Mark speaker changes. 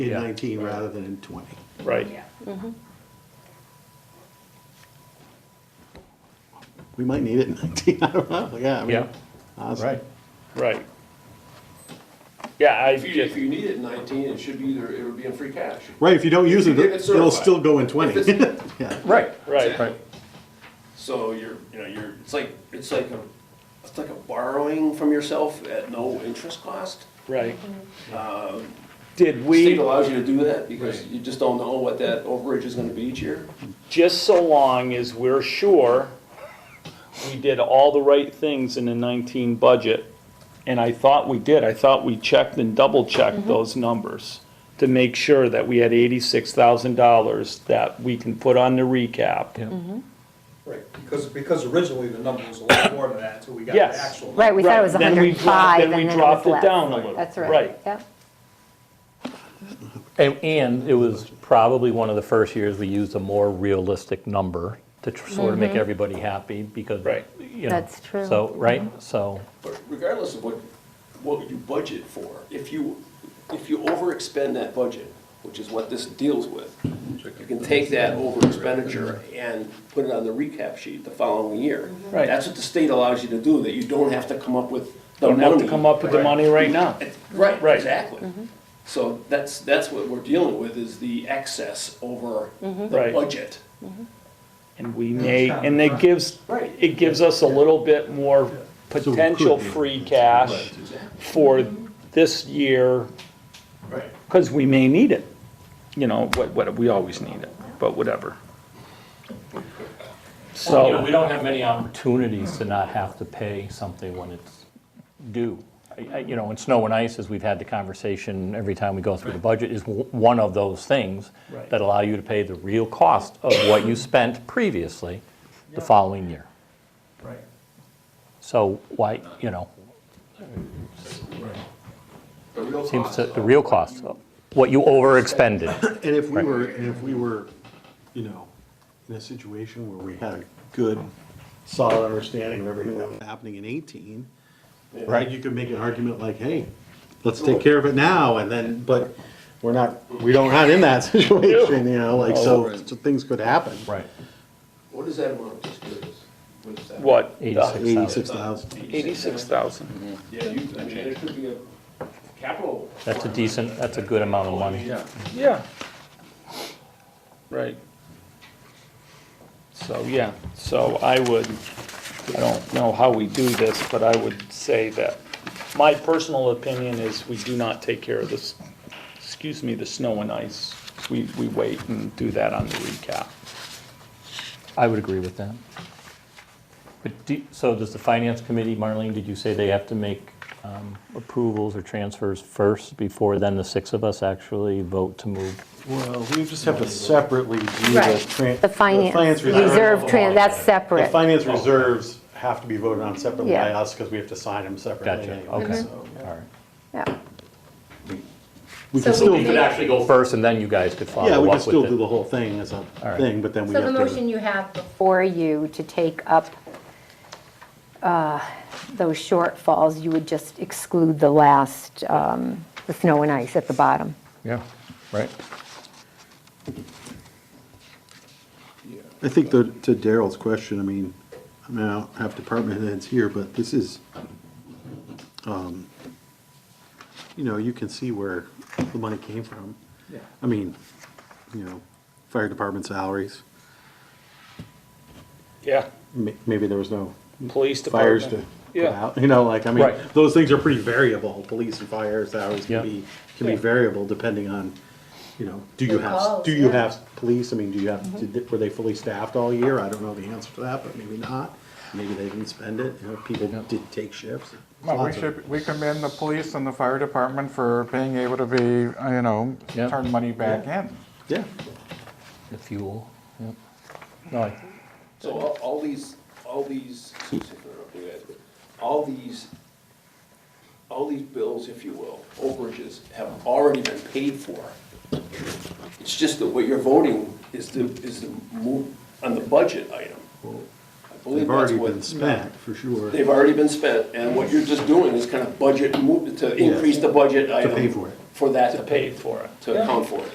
Speaker 1: in
Speaker 2: Yeah.
Speaker 1: nineteen rather than in twenty.
Speaker 2: right?
Speaker 3: Yeah.
Speaker 1: We might need it in nineteen, I don't know, yeah, I mean.
Speaker 2: Yeah,
Speaker 1: honestly.
Speaker 2: right, right. Yeah, I
Speaker 4: If you, if
Speaker 2: just,
Speaker 4: you need it in nineteen, it should be either, it would be in free cash.
Speaker 1: Right, if you don't use it,
Speaker 4: If you get it
Speaker 1: it'll
Speaker 4: certified.
Speaker 1: still go in twenty.
Speaker 4: If it's-
Speaker 1: Yeah.
Speaker 2: right, right,
Speaker 4: Exactly.
Speaker 2: right,
Speaker 4: So you're, you know, you're, it's like, it's like a, it's like a borrowing from yourself at no interest cost.
Speaker 2: right.
Speaker 4: Um,
Speaker 2: Did we,
Speaker 4: State allows you to do that because you just don't know what that overage is gonna be each year.
Speaker 2: just so long as we're sure we did all the right things in the 19 budget, and I thought we did, I thought we checked and double-checked those numbers to make sure that we had $86,000 that we can put on the recap.
Speaker 5: Right, because, because originally the number was a lot more than that until we got
Speaker 2: Yes.
Speaker 5: the actual.
Speaker 6: Right, we thought it was
Speaker 2: Right, then we dropped-
Speaker 6: 105 and
Speaker 2: we
Speaker 6: then it
Speaker 2: dropped
Speaker 6: was
Speaker 2: it down a
Speaker 6: less.
Speaker 2: little.
Speaker 6: That's right,
Speaker 2: Right,
Speaker 6: yep.
Speaker 7: And, and it was probably one of the first years we used a more realistic number to tr- sort of make everybody happy because.
Speaker 2: Right.
Speaker 7: you know,
Speaker 6: Mm-hmm. That's true.
Speaker 7: So, right, so,
Speaker 4: But regardless of what, what you budget for, if you, if you overexpend that budget, which is what this deals with, you can take that over expenditure and put it on the recap sheet the following year.
Speaker 2: Right.
Speaker 4: That's what the state allows you to do, that you don't have to come up with the
Speaker 2: Don't
Speaker 4: money.
Speaker 2: have to come up with the money right now.
Speaker 4: Right,
Speaker 2: Right.
Speaker 4: exactly. So that's, that's what we're dealing with, is the excess over the
Speaker 2: Right.
Speaker 4: budget.
Speaker 2: And we may, and it gives,
Speaker 4: Right.
Speaker 2: it gives us a little bit more potential free cash for this year,
Speaker 4: Right.
Speaker 2: because we may need it. You know, what, what, we always need it, but whatever.
Speaker 7: you know, we
Speaker 2: So,
Speaker 7: don't have many opportunities to not have to pay something when it's due. I- I- You know, in snow and ice, as we've had the conversation every time we go through the budget, is w- one of those things
Speaker 2: Right.
Speaker 7: that allow you to pay the real cost of what you spent previously the following year.
Speaker 5: Right.
Speaker 7: So why, you know,
Speaker 4: The real
Speaker 7: seems
Speaker 4: cost.
Speaker 7: to, the real cost, what you overexpended.
Speaker 1: And if we were, and if we were, you know, in a situation where we had a good, solid understanding of everything that was happening in eighteen, right, you could make an argument like, hey, let's take care of it now, and then, but we're not, we don't, not in that situation, you know, like, so, so things could happen.
Speaker 7: Right.
Speaker 4: What is that amount, just curious? What is that?
Speaker 2: what?
Speaker 7: Eighty-six.
Speaker 1: Eighty-six thousand.
Speaker 2: Eighty-six thousand.
Speaker 4: Yeah, you, I mean, there could be a capital.
Speaker 7: That's a decent, that's a good amount of money.
Speaker 4: Yeah.
Speaker 2: Yeah. Right. So, yeah, so I would, I don't know how we do this, but I would say that, my personal opinion is we do not take care of this, excuse me, the snow and ice. We, we wait and do that on the recap.
Speaker 7: I would agree with that. But do, so does the finance committee, Marlene, did you say they have to make um, approvals or transfers first before then the six of us actually vote to move?
Speaker 1: Well, we just have to separately do
Speaker 6: Right. The finance, reserve, tran- that's
Speaker 1: The
Speaker 6: separate.
Speaker 1: finance reserves have to be voted on separately by
Speaker 6: Yeah. Mm-hmm.
Speaker 1: us, because we have to sign them separately.
Speaker 7: Gotcha,
Speaker 1: anyway,
Speaker 7: okay,
Speaker 1: so, yeah.
Speaker 7: all right.
Speaker 6: Yeah.
Speaker 1: We
Speaker 3: So
Speaker 1: can
Speaker 3: we
Speaker 1: still,
Speaker 3: need-
Speaker 1: yeah,
Speaker 7: actually go first and then you guys could follow
Speaker 1: we
Speaker 7: up
Speaker 1: can
Speaker 7: with
Speaker 1: still do the
Speaker 7: it.
Speaker 1: whole thing as a
Speaker 7: right.
Speaker 1: thing, but then we
Speaker 6: So
Speaker 1: have
Speaker 6: the
Speaker 1: to.
Speaker 6: motion you have before you to take up uh, those shortfalls, you would just exclude the last, um, the snow and ice at the bottom.
Speaker 7: Yeah, right.
Speaker 1: I think the, to Daryl's question, I mean, I mean, I don't have department heads here, but this is, um, you know, you can see where the money came from.
Speaker 5: Yeah.
Speaker 1: I mean, you know, fire department salaries,
Speaker 2: Yeah,
Speaker 1: ma- maybe there was no
Speaker 2: police
Speaker 1: fires to
Speaker 2: department.
Speaker 1: put
Speaker 2: Yeah.
Speaker 1: out, you know, like, I mean,
Speaker 7: Right.
Speaker 1: those things are pretty variable, police and fire salaries
Speaker 7: Yeah.
Speaker 1: can be, can be
Speaker 2: Yeah.
Speaker 1: variable depending on, you know, do you
Speaker 6: The
Speaker 1: have,
Speaker 6: calls,
Speaker 1: do you
Speaker 6: yeah. Mm-hmm.
Speaker 1: have police, I mean, do you have, did they- were they fully staffed all year? I don't know the answer to that, but maybe not, maybe they didn't spend it, you know, people did take shifts.
Speaker 8: Well, we
Speaker 1: Lots of-
Speaker 8: should, we commend the police and the fire department for being able to be, you know,
Speaker 7: Yeah.
Speaker 8: turn money back in.
Speaker 1: Yeah,
Speaker 7: The fuel, yep. No, I-
Speaker 4: So all, all these, all these, excuse me for interrupting you guys, but all these, all these bills, if you will, overages have already been paid for. It's just that what you're voting is the, is the move on the budget item. I believe
Speaker 1: they've
Speaker 4: that's
Speaker 1: already been
Speaker 4: what,
Speaker 1: spent, for sure,
Speaker 4: they've already been spent, and what you're just doing is kind of budget move, to increase the budget
Speaker 1: to
Speaker 4: item.
Speaker 1: pay for it.
Speaker 4: for that
Speaker 2: to
Speaker 4: to
Speaker 2: pay
Speaker 4: pay,
Speaker 2: for it.
Speaker 4: to account for it.